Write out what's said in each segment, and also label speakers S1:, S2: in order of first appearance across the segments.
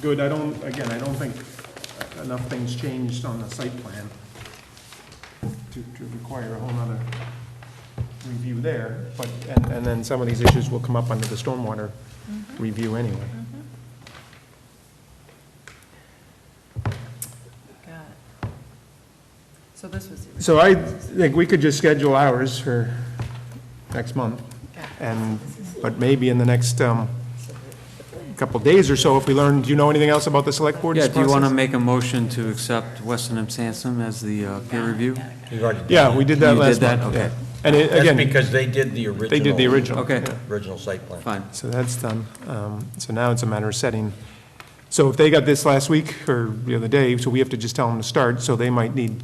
S1: good. I don't, again, I don't think enough things changed on the site plan to, to require a whole nother review there, but, and, and then some of these issues will come up under the stormwater review anyway.
S2: Got it. So this was the
S1: So I think we could just schedule ours for next month,
S2: original.
S1: and, but maybe in the next, um, couple days or so, if we learn, do you know anything else about the select board's
S3: Yeah,
S1: process?
S3: do you want to make a motion to accept Weston and Sampson as the uh, peer review?
S4: You've already done
S1: Yeah, we did that
S3: You did
S1: last
S3: that?
S1: month, yeah.
S3: Okay.
S1: And it-
S4: That's
S1: again,
S4: because they did the original.
S1: they did the original.
S3: Okay,
S4: Original site plan.
S3: fine.
S1: So that's done. Um, So now it's a matter of setting. So if they got this last week or the other day, so we have to just tell them to start, so they might need,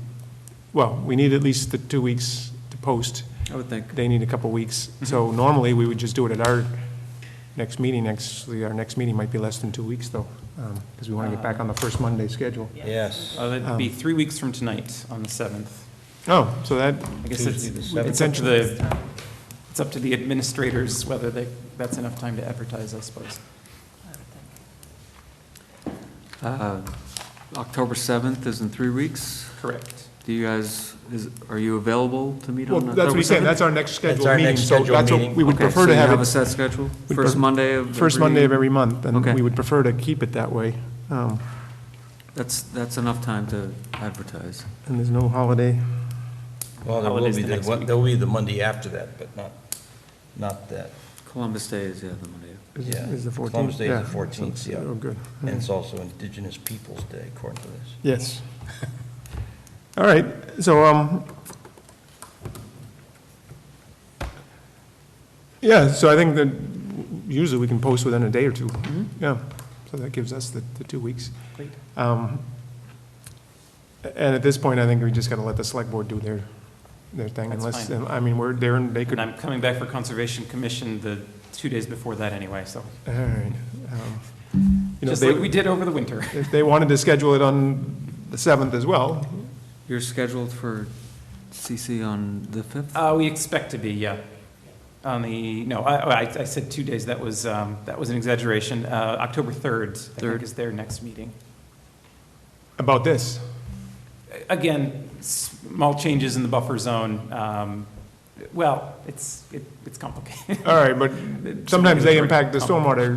S1: well, we need at least the two weeks to post.
S3: I would think.
S1: They need a couple weeks. So normally, we would just do it at our next meeting. Actually, our next meeting might be less than two weeks, though, because we want to get back on the first Monday schedule.
S4: Yes.
S5: Uh, That'd be three weeks from tonight, on the 7th.
S1: Oh, so that,
S5: I guess it's,
S4: Tuesday the
S5: it's
S4: 7th.
S5: up to the, it's up to the administrators whether they, that's enough time to advertise, I suppose.
S3: Uh, October 7th is in three weeks.
S5: Correct.
S3: Do you guys, is, are you available to meet
S1: well,
S3: on October 7th?
S1: that's what we said, that's our next
S4: That's
S1: scheduled
S4: our
S1: meeting.
S4: next
S1: So
S4: scheduled
S1: that's what
S4: meeting.
S1: We would
S3: Okay,
S1: prefer
S3: so
S1: to
S3: you
S1: have
S3: a
S1: it
S3: set schedule?
S1: We'd
S3: First
S1: prefer-
S3: Monday of every...
S1: first Monday of every month, and
S3: Okay.
S1: we would prefer to keep it that way. Um,
S3: That's, that's enough time to advertise.
S1: And there's no holiday.
S4: Well, there will
S5: Holidays
S4: be,
S5: the
S4: the-
S5: next
S4: what-
S5: week.
S4: there'll be the Monday after that, but not, not that.
S3: Columbus Day is, yeah, the Monday.
S1: Is-
S4: Yeah.
S1: Is the 14th?
S4: Columbus Day is the
S1: Yeah.
S4: 14th,
S1: So it's-
S4: yeah.
S1: Oh, good.
S4: And it's also Indigenous Peoples' Day, according to this.
S1: Yes. All right, so, um, yeah, so I think that usually we can post within a day or two. Yeah, so that gives us the, the two weeks.
S5: Great.
S1: Um, And at this point, I think we just got to let the select board do their, their thing.
S5: That's
S1: Unless,
S5: fine.
S1: I mean, we're, they're, they could,
S5: And
S1: all
S5: I'm coming back for Conservation Commission the two days before that anyway, so,
S1: right. um, You know,
S5: just
S1: they,
S5: like we did over the winter.
S1: if they wanted to schedule it on the 7th as well,
S3: You're scheduled for CC on the 5th?
S5: Uh, we expect to be, yeah. On the, no, I, I I said two days, that was, um, that was an exaggeration. Uh, October 3rd, I think,
S3: Third.
S5: is their next meeting.
S1: about this.
S5: Again, small changes in the buffer zone. um, Well, it's, it- it's complicated.
S1: All right, but sometimes they impact the
S5: It's very
S1: stormwater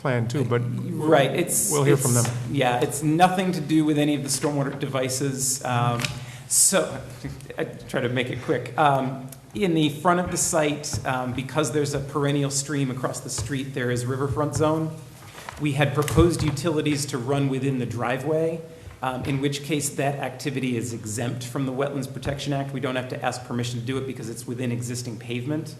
S1: plan too, but.
S5: Right, it's.
S1: We'll hear from them.
S5: it's- Yeah, it's nothing to do with any of the stormwater devices. Um, So, I try to make it quick. Um, In the front of the site, um, because there's a perennial stream across the street, there is riverfront zone. We had proposed utilities to run within the driveway, um, in which case that activity is exempt from the Wetlands Protection Act. We don't have to ask permission to do it because it's within existing pavement.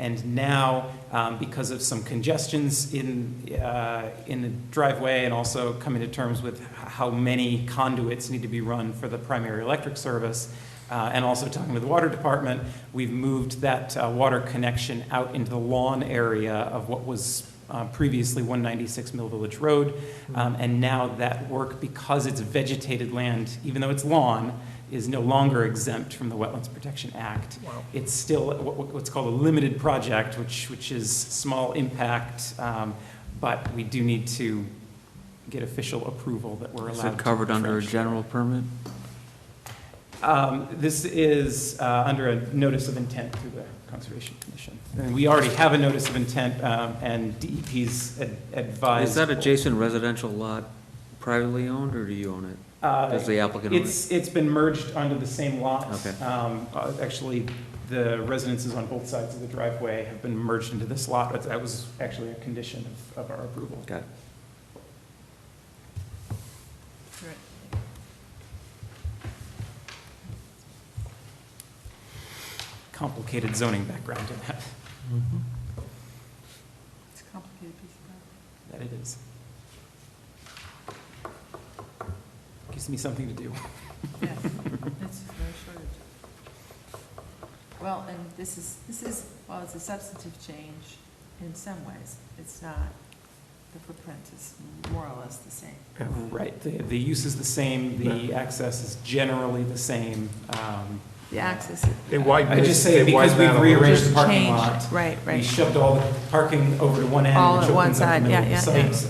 S5: And now, um, because of some congestions in, uh, in the driveway and also coming to terms with h- how many conduits need to be run for the primary electric service, uh, and also talking with the water department, we've moved that uh, water connection out into the lawn area of what was uh, previously 196 Mill Village Road. Um, And now that work, because it's vegetated land, even though it's lawn, is no longer exempt from the Wetlands Protection Act. It's still what- what- what's called a limited project, which, which is small impact, um, but we do need to get official approval that we're allowed
S3: Is
S5: to.
S3: it covered under a
S5: trench.
S3: general permit?
S5: Um, This is uh, under a notice of intent through the Conservation Commission. And we already have a notice of intent, um, and DEP's ad- advised.
S3: Is that adjacent residential lot privately owned, or do you own it?
S5: Uh,
S3: Does the applicant own it?
S5: It's, it's been merged onto the same lot.
S3: Okay.
S5: Um, uh, Actually, the residences on both sides of the driveway have been merged into this lot. That- That was actually a condition of, of our approval.
S3: Got it.
S5: Complicated zoning background in that,
S2: It's a complicated piece of
S5: that it is. Gives me something to do.
S2: paper. Yes, it's no shortage. Well, and this is, this is, well, it's a substantive change in some ways. It's not, the footprint is more or less the same.
S5: Right, the, the use is the same, the access is generally the same. um,
S2: The axis. is-
S1: They widened
S5: I just say
S1: They
S5: because
S1: widened that a
S5: we've
S1: little bit.
S5: rearranged the parking
S2: Changed,
S5: lot,
S2: Right,
S5: we
S2: right.
S5: shoved all the parking over to one end,
S2: All
S5: which
S2: at one
S5: opens up the
S2: side,
S5: middle
S2: yeah,
S5: of the
S2: yeah,
S5: site,